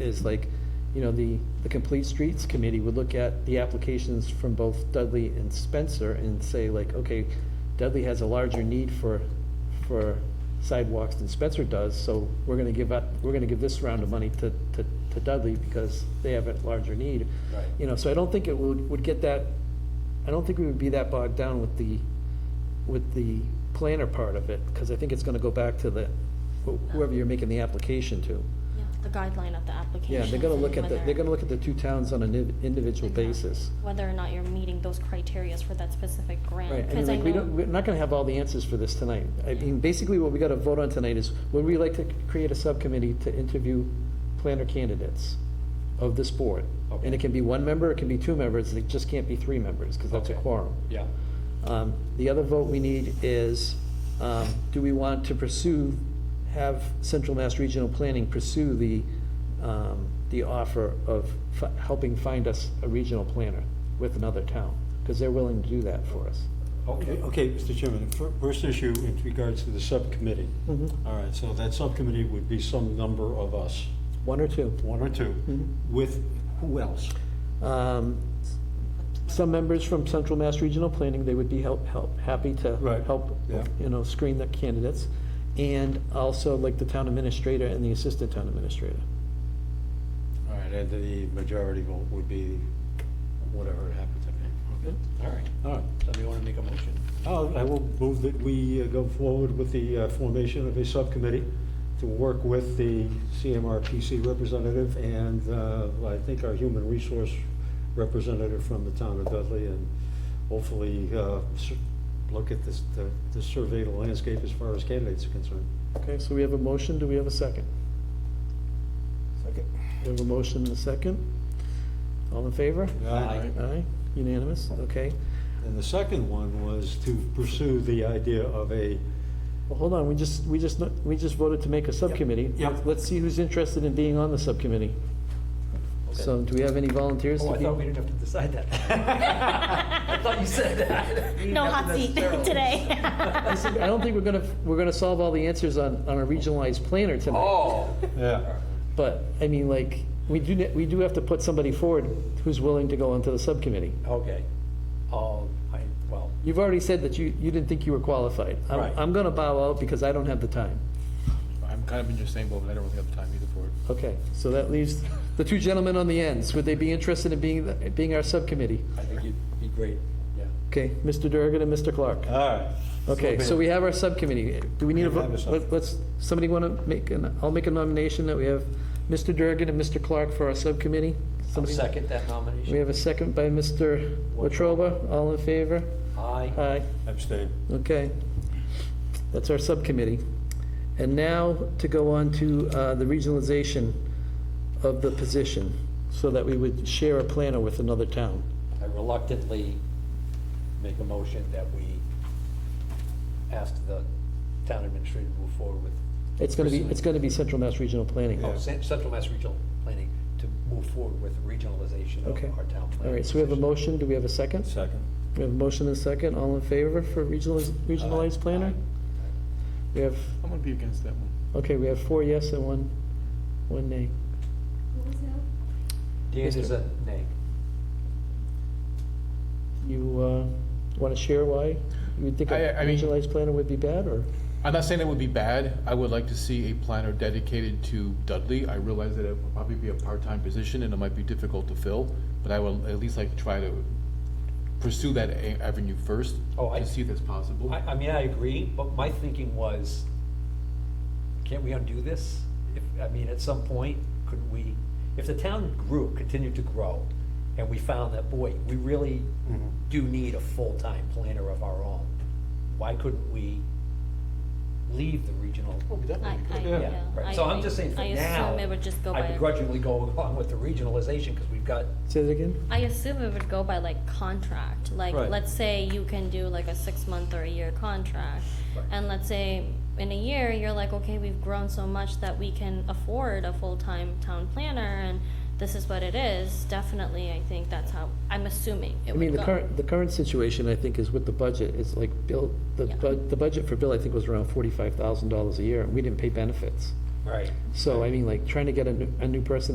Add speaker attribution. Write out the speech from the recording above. Speaker 1: is like, you know, the, the Complete Streets Committee would look at the applications from both Dudley and Spencer and say like, okay, Dudley has a larger need for, for sidewalks than Spencer does, so we're gonna give up, we're gonna give this round of money to, to, to Dudley because they have a larger need.
Speaker 2: Right.
Speaker 1: You know, so I don't think it would, would get that, I don't think we would be that bogged down with the, with the planner part of it, because I think it's gonna go back to the, wh- whoever you're making the application to.
Speaker 3: Yeah, the guideline of the application.
Speaker 1: Yeah, they're gonna look at the,
Speaker 3: whether-
Speaker 1: they're gonna look at the two towns on an in- individual
Speaker 3: Exactly.
Speaker 1: basis.
Speaker 3: Whether or not you're meeting those criterias for that specific grant.
Speaker 1: Right, I mean,
Speaker 3: 'cause I
Speaker 1: like, we
Speaker 3: know-
Speaker 1: don't, we're not gonna have all the answers for this tonight. I mean, basically what we gotta vote on tonight is, would we like to create a subcommittee to interview planner candidates of this board? And
Speaker 2: Okay.
Speaker 1: it can be one member, it can be two members, it just can't be three members, because that's a
Speaker 2: Okay.
Speaker 1: quorum.
Speaker 2: Yeah,
Speaker 1: Um, The other vote we need is, um, do we want to pursue, have Central Mass Regional Planning pursue the, um, the offer of fi- helping find us a regional planner with another town? Because they're willing to do that for us.
Speaker 2: okay.
Speaker 4: Okay, Mr. Chairman, the fir- first issue in regards to the subcommittee. All right, so that subcommittee would be some number of us,
Speaker 1: One or two.
Speaker 4: one or two, with who else?
Speaker 1: Um, Some members from Central Mass Regional Planning, they would be help, help, happy to
Speaker 4: Right,
Speaker 1: help,
Speaker 4: yeah.
Speaker 1: you know, screen the candidates. And also like the town administrator and the assistant town administrator.
Speaker 4: All right, and the majority vote would be whatever it happens to be. Okay, all right. All right,
Speaker 2: Somebody want to make a motion?
Speaker 4: I'll- I will move that we uh, go forward with the uh, formation of a subcommittee to work with the CMRPC representative and uh, I think our human resource representative from the town of Dudley and hopefully uh, s- look at this, the- the survey of the landscape as far as candidates are concerned.
Speaker 1: Okay, so we have a motion, do we have a second?
Speaker 2: Second.
Speaker 1: We have a motion and a second. All in favor?
Speaker 2: Aye.
Speaker 1: Aye, unanimous, okay.
Speaker 4: And the second one was to pursue the idea of a,
Speaker 1: Well, hold on, we just, we just, we just voted to make a subcommittee.
Speaker 4: Yep.
Speaker 1: Let's see who's interested in being on the subcommittee. So do we have any volunteers? to
Speaker 2: Oh, I
Speaker 1: be-
Speaker 2: thought we didn't have to decide that. I thought you said that. We didn't
Speaker 3: No
Speaker 2: have to
Speaker 3: hot seat
Speaker 2: necessarily.
Speaker 3: today.
Speaker 1: I don't think we're gonna, we're gonna solve all the answers on, on a regionalized planner tonight.
Speaker 2: Oh,
Speaker 4: yeah,
Speaker 1: But, I mean, like, we do, ne- we do have to put somebody forward who's willing to go onto the subcommittee.
Speaker 2: okay. Oh, I, well,
Speaker 1: You've already said that you, you didn't think you were qualified. I'm-
Speaker 4: Right.
Speaker 1: I'm gonna bow out because I don't have the time.
Speaker 5: I'm kind of in your same boat, but I don't really have the time either for it.
Speaker 1: Okay, so that leaves the two gentlemen on the ends. Would they be interested in being, being our subcommittee?
Speaker 2: I think you'd be great, yeah.
Speaker 1: Okay, Mr. Durgan and Mr. Clark.
Speaker 4: all right.
Speaker 1: Okay, so we have our subcommittee. Do we need a,
Speaker 4: We have a
Speaker 1: vote?
Speaker 4: sub-
Speaker 1: Let- let's, somebody want to make, an? I'll make a nomination that we have Mr. Durgan and Mr. Clark for our subcommittee?
Speaker 2: I'll
Speaker 1: Somebody-
Speaker 2: second that
Speaker 1: We
Speaker 2: nomination.
Speaker 1: have a second by Mr. Wetruba. All in favor?
Speaker 2: Aye.
Speaker 1: Aye.
Speaker 4: Abstain.
Speaker 1: Okay. That's our subcommittee. And now to go on to uh, the regionalization of the position, so that we would share a planner with another town.
Speaker 2: I reluctantly make a motion that we ask the town administrator to move forward with.
Speaker 1: It's going to be,
Speaker 2: pursuing-
Speaker 1: it's going to be Central Mass Regional Planning.
Speaker 2: Oh, Cen- Central Mass Regional Planning to move forward with regionalization
Speaker 1: Okay.
Speaker 2: of our town planning.
Speaker 1: All right, so we have a
Speaker 2: decision.
Speaker 1: motion, do we have a second?
Speaker 4: Second.
Speaker 1: We have a motion and a second, all in favor for regionaliz- regionalized planner? We have,
Speaker 5: I'm gonna be against that one.
Speaker 1: okay, we have four yes and one, one nay.
Speaker 2: Dan is a nay.
Speaker 1: You want to share why? You would think a
Speaker 5: I- I mean-
Speaker 1: regionalized planner would be bad, or?
Speaker 5: I'm not saying that would be bad. I would like to see a planner dedicated to Dudley. I realize that it would probably be a part-time position and it might be difficult to fill, but I would at least like to try to pursue that a- avenue first.
Speaker 2: Oh, I-
Speaker 5: To see if that's possible.
Speaker 2: I, I mean, I agree, but my thinking was, can't we undo this? If, I mean, at some point, could we, if the town grew, continued to grow, and we found that, boy, we really
Speaker 1: Mm-hmm.
Speaker 2: do need a full-time planner of our own, why couldn't we leave the regional?
Speaker 3: I, I,
Speaker 2: Yeah,
Speaker 3: yeah.
Speaker 2: right.
Speaker 3: I-
Speaker 2: So I'm
Speaker 3: I-
Speaker 2: just saying for
Speaker 3: I
Speaker 2: now,
Speaker 3: assume it would just go by.
Speaker 2: I begrudgingly go along with the regionalization, because we've got,
Speaker 1: Say that again?
Speaker 3: I assume it would go by like contract, like,
Speaker 2: Right.
Speaker 3: let's say you can do like a six-month or a year contract.
Speaker 2: Right.
Speaker 3: And let's say in a year, you're like, okay, we've grown so much that we can afford a full-time town planner and this is what it is, definitely, I think that's how, I'm assuming it
Speaker 1: I
Speaker 3: would
Speaker 1: mean, the
Speaker 3: go.
Speaker 1: current, the current situation, I think, is with the budget, is like, Bill, the,
Speaker 3: Yeah.
Speaker 1: bud- the budget for Bill, I think, was around forty-five thousand dollars a year, and we didn't pay benefits.
Speaker 2: right,
Speaker 1: So, I mean, like, trying to get a new, a new person